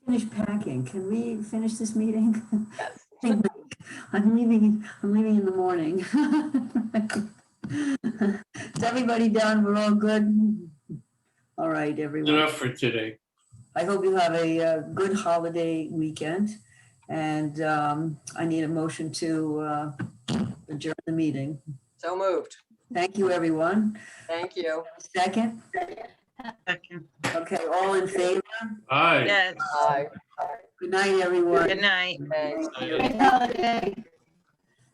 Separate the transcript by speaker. Speaker 1: finish packing. Can we finish this meeting? Hey, Mike, I'm leaving, I'm leaving in the morning. Is everybody done? We're all good? All right, everyone.
Speaker 2: Enough for today.
Speaker 1: I hope you have a uh, good holiday weekend. And um, I need a motion to uh, adjourn the meeting.
Speaker 3: So moved.
Speaker 1: Thank you, everyone.
Speaker 3: Thank you.
Speaker 1: Second?
Speaker 4: Second.
Speaker 1: Okay, all in favor?
Speaker 2: Aye.
Speaker 4: Yes,
Speaker 3: Bye.
Speaker 1: Good night, everyone.
Speaker 4: good night.
Speaker 3: Thanks.
Speaker 2: Aye.
Speaker 5: Happy holiday.